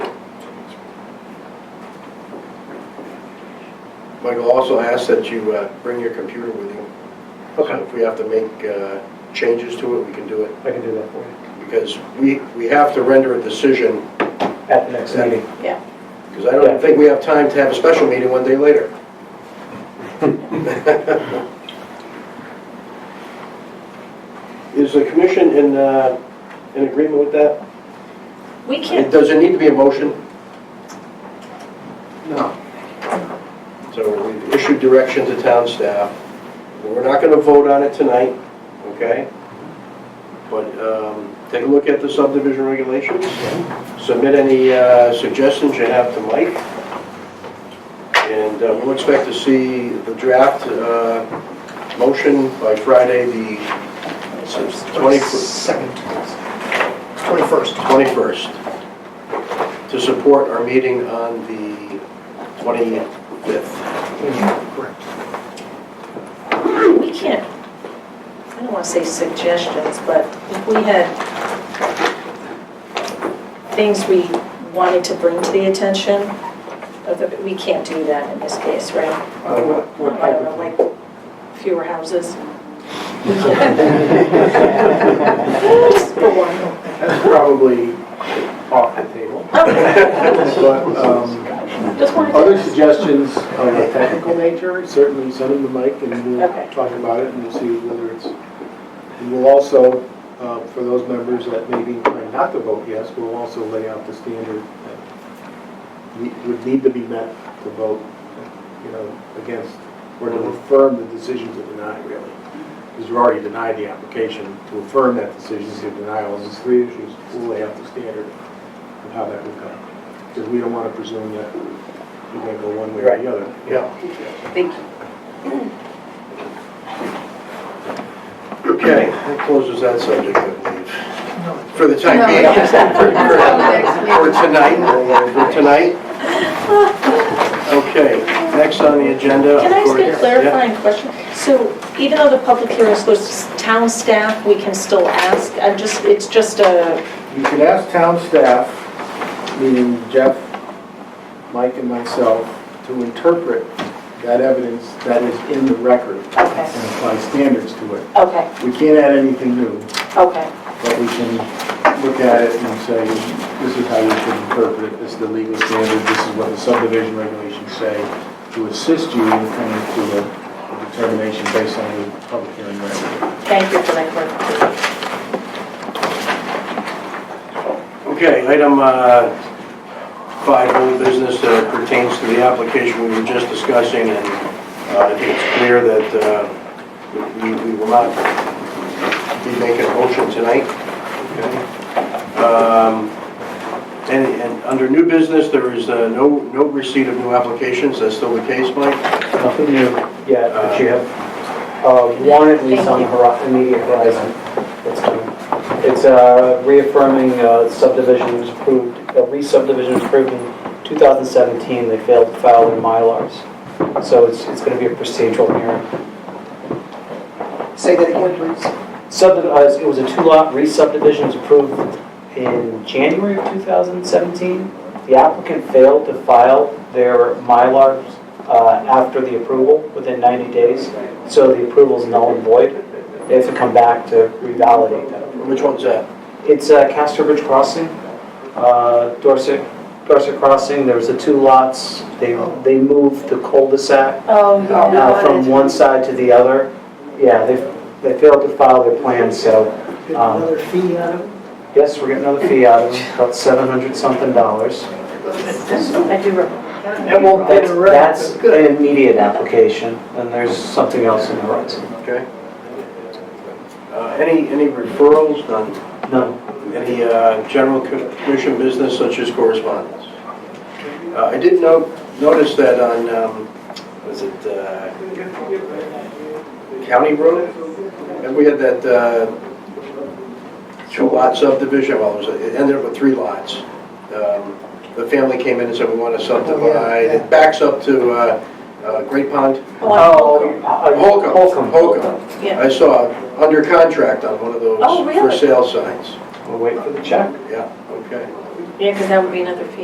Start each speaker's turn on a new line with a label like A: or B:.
A: Michael also asked that you uh, bring your computer with you. So
B: Okay,
A: If we have to make uh, changes to it, we can do it,
B: I can do that for you
A: because we, we have to render a decision,
B: at the next meeting.
A: because I don't think we have time to have a special meeting one day later. Is the commission in, uh, in agreement with that?
C: We
A: It
C: can't,
A: Does it need to be a motion?
D: No.
A: So we've issued direction to town staff. We're not going to vote on it tonight, okay? But um, take a look at the subdivision regulations, submit any uh, suggestions you have to Mike, and uh, we'll expect to see the draft uh, motion by Friday, the
D: Twenty second. Twenty-first.
A: 21st, to support our meeting on the 25th.
D: Correct.
C: we can't, I don't want to say suggestions, but if we had things we wanted to bring to the attention of the, we can't do that in this case, right?
B: Uh, what- what
C: I
B: type
C: don't know,
B: of thing?
C: like fewer houses. Just for one.
B: That's probably off the table.
E: But um,
C: Just wanted to
E: other
C: ask.
E: suggestions of a technical nature, certainly send them to Mike and we'll
C: Okay.
E: talk about it and we'll see whether it's, and we'll also, uh, for those members that may be inclined not to vote yes, we'll also lay out the standard that ne- would need to be met to vote, you know, against, or to affirm the decision to deny, really. Because you already denied the application, to affirm that decision is a denial, and there's three issues, we'll lay out the standard of how that would go. Because we don't want to presume that we're going to go one way or
A: Right.
E: the other.
A: Yeah,
C: Thank you.
A: okay, that closes that subject, I believe, for the time being.
F: No.
A: For tonight, for tonight. Okay, next on the agenda.
C: Can I ask
A: of
C: a
A: course-
C: clarifying question? So even though the public hearing is closed, s- town staff, we can still ask? I'm just, it's just a,
E: You can ask town staff, meaning Jeff, Mike, and myself, to interpret that evidence that is in the record
C: okay,
E: and apply standards to it.
C: okay,
E: We can't add anything new,
C: okay,
E: but we can look at it and say, this is how you should interpret it, this is the legal standard, this is what the subdivision regulations say, to assist you in coming to a a determination based on the public hearing record.
C: thank you for that clarification.
A: Okay, item uh, five, old business uh, pertains to the application we were just discussing, and uh, I think it's clear that uh, we we will not be making a motion tonight. Um, And and under new business, there is uh, no no receipt of new applications, that's still the case, Mike?
B: Nothing new yet, but you have uh, one at least on the hori- immediate horizon. It's coming. It's uh, reaffirming uh, subdivision was approved, a re-subdivision was approved in 2017. They failed to file their Mylars. So it's it's going to be a procedural hearing.
D: Say that again, please.
B: Subdivision, uh, it was a two-lot re-subdivision was approved in January of 2017. The applicant failed to file their Mylars uh, after the approval, within 90 days, so the approval's null and void. They have to come back to revalidate that.
A: Which one's that?
B: It's uh, Castor Bridge Crossing, uh, Dorset, Dorset Crossing, there was the two lots, they, they moved the cul-de-sac
C: Oh,
B: uh, from one side to the other. Yeah, they, they failed to file their plan, so,
D: Get
B: Um,
D: another fee out of it?
B: yes, we're getting another fee out of them, about seven hundred something dollars.
C: I do remember.
D: That won't pay the rent.
B: That's an immediate application, and there's something else in the horizon.
A: Okay. Uh, Any any referrals, none?
B: No,
A: any uh, general commission business such as correspondence. Uh, I did note, notice that on, um, was it uh, County Road? And we had that uh, two-lot subdivision, well, it was- it ended up with three lots. Um, The family came in and said, we want to subdivide, it backs up to uh, uh, Great Pond,
B: oh, uh,
A: Holcomb.
B: Holcomb.
A: Holcomb.
C: Yeah.
A: I saw under contract on one of those
C: Oh,
A: for
C: really?
A: sale signs.
B: We'll wait for the check.
A: Yeah, okay.
C: Yeah, because that would be another fee.